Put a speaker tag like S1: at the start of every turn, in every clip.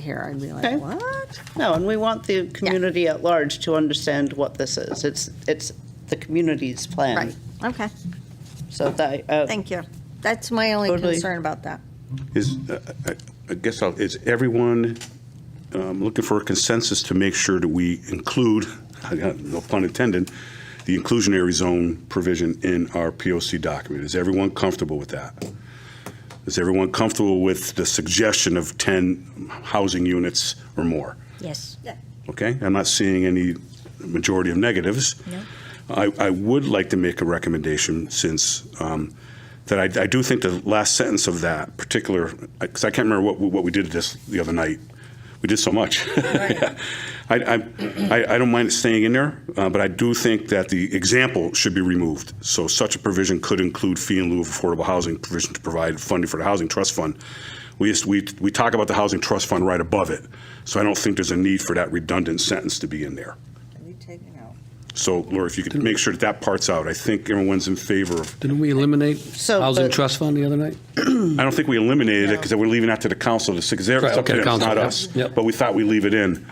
S1: here, I'd be
S2: Okay.
S1: like, what?
S2: No, and we want the community at large to understand what this is. It's, it's the community's plan.
S3: Right, okay,
S2: So that, uh,
S3: thank you. That's my only
S2: Totally.
S3: concern about that.
S4: Is, uh, I- I guess, I'll- is everyone um, looking for a consensus to make sure that we include, I got no pun intended, the inclusionary zone provision in our POC document? Is everyone comfortable with that? Is everyone comfortable with the suggestion of 10 housing units or more?
S3: Yes.
S4: Okay, I'm not seeing any majority of negatives. I, I would like to make a recommendation since, um, that I, I do think the last sentence of that particular, because I can't remember what, we- what we did this the other night. We did so much. I, I, I- I don't mind it staying in there, uh, but I do think that the example should be removed. So such a provision could include fee in lieu of affordable housing provision to provide funding for the housing trust fund. We just, we, we talk about the housing trust fund right above it, so I don't think there's a need for that redundant sentence to be in there. So Laura, if you could make sure that that part's out, I think everyone's in favor of,
S5: Didn't we eliminate
S2: So,
S5: housing
S2: but-
S5: trust fund the other night?
S4: I don't think we eliminated it because we're leaving that to the council to, because they're, it's
S5: Right,
S4: up to
S5: okay,
S4: them, it's
S5: council,
S4: not
S5: yep,
S4: us.
S5: yep.
S4: But we thought we'd leave it in.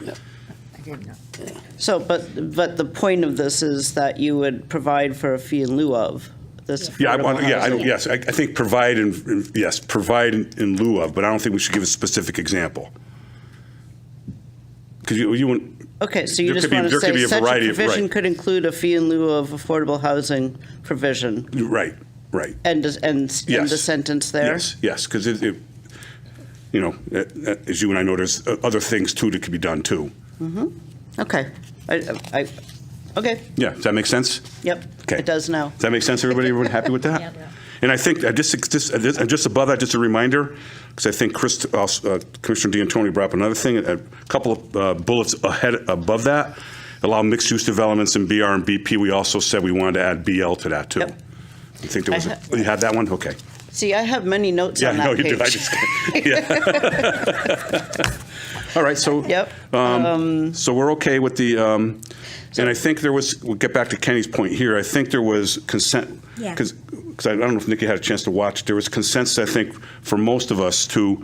S2: so, but, but the point of this is that you would provide for a fee in lieu of this
S4: Yeah, I
S2: affordable
S4: want, yeah, I
S2: housing.
S4: don't, yes, I, I think provide in, yes, provide in in lieu of, but I don't think we should give a specific example. Because you, you wouldn't,
S2: Okay, so you
S4: There
S2: just
S4: could be-
S2: want to
S4: there could be
S2: say
S4: a
S2: such a
S4: variety of-
S2: provision
S4: right.
S2: could include a fee in lieu of affordable housing provision.
S4: right, right.
S2: End, is- end, s- end
S4: Mm. Yes.
S2: the sentence there?
S4: Yes, yes, because it, it- you know, uh, uh, as you and I know, there's uh, other things too that could be done too.
S2: Okay. I, I, okay,
S4: Yeah, does that make sense?
S2: yep.
S4: Okay.
S2: It does now.
S4: Does that make sense, everybody? Everyone happy with that? And I think, uh, just, just, uh, just- uh, just above that, just a reminder, because I think Chris, uh, Commissioner D'Antoni brought up another thing, a couple of uh, bullets ahead, above that, allow mixed-use developments in BR and BP. We also said we wanted to add BL to that, too.
S2: Yep.
S4: You think there was,
S2: I
S4: a-
S2: ha-
S4: you have that one? Okay.
S2: See, I have many notes
S4: Yeah,
S2: on
S4: I know
S2: that
S4: you
S2: page.
S4: do. I just, yeah. All right, so.
S2: Yep.
S4: Um, So we're okay with the, um, and I think there was, we'll get back to Kenny's point here, I think there was consent,
S3: Yeah.
S4: because, I don't know if Nikki had a chance to watch, there was consensus, I think, for most of us to,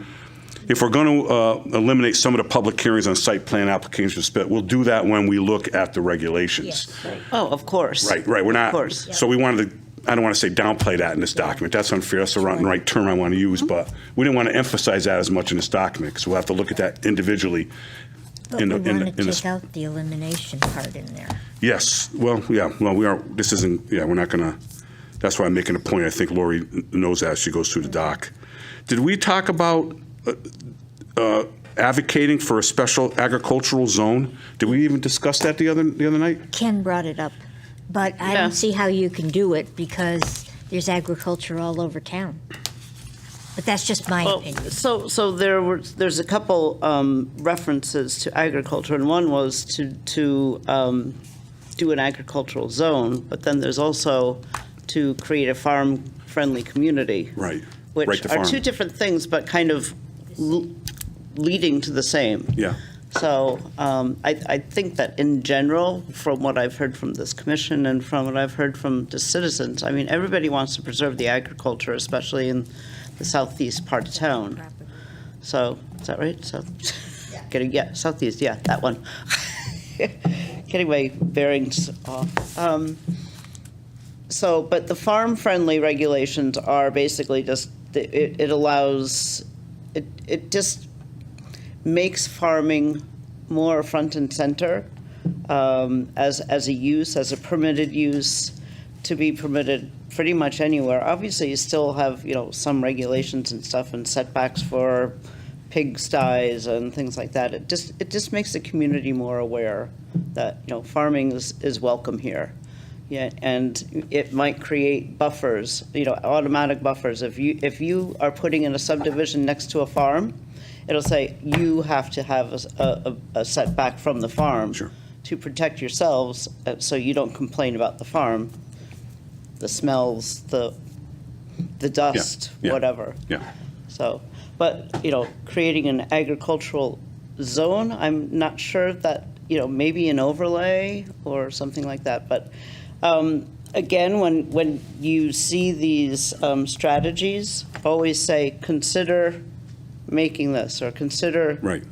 S4: if we're going to eliminate some of the public hearings on site plan applications, but we'll do that when we look at the regulations.
S2: Oh, of course.
S4: Right, right, we're not.
S2: Of course.
S4: So we wanted to, I don't want to say downplay that in this document, that's unfair, that's the wrong, right term I want to use, but we didn't want to emphasize that as much in this document, because we'll have to look at that individually.
S6: But
S4: in
S6: we
S4: the- in the-
S6: want
S4: in
S6: to
S4: the-
S6: take out the elimination part in there.
S4: Yes, well, yeah, well, we are, this isn't, yeah, we're not gonna, that's why I'm making a point, I think Lori kn- knows that, as she goes through the doc. Did we talk about uh, uh, advocating for a special agricultural zone? Did we even discuss that the other, the other night?
S6: Ken brought it up, but I
S2: Yeah.
S6: don't see how you can do it because there's agriculture all over town. But that's just my
S2: Well,
S6: opinion.
S2: so, so there were, there's a couple um, references to agriculture, and one was to, to um, do an agricultural zone, but then there's also to create a farm-friendly community.
S4: Right. Right
S2: Which
S4: to
S2: are
S4: farm.
S2: two different things, but kind of l- leading to the same.
S4: Yeah.
S2: So um, I, I think that in general, from what I've heard from this commission and from what I've heard from the citizens, I mean, everybody wants to preserve the agriculture, especially in the southeast part of town. So, is that right? South, getting, yeah, southeast, yeah, that one. Getting my bearings off. Um, So, but the farm-friendly regulations are basically just, it, it allows, it, it just makes farming more front and center um, as, as a use, as a permitted use, to be permitted pretty much anywhere. Obviously, you still have, you know, some regulations and stuff and setbacks for pig sties and things like that. It just, it just makes the community more aware that, you know, farming is, is welcome here. Yeah, and it might create buffers, you know, automatic buffers. If you, if you are putting in a subdivision next to a farm, it'll say you have to have a s- a, a- a setback from the farm
S4: Sure.
S2: to protect yourselves, uh, so you don't complain about the farm, the smells, the, the dust,
S4: yeah.
S2: whatever.
S4: Yeah.
S2: So, but, you know, creating an agricultural zone, I'm not sure that, you know, maybe an overlay or something like that. But um, again, when, when you see these um, strategies, always say, consider making this or consider
S4: Right.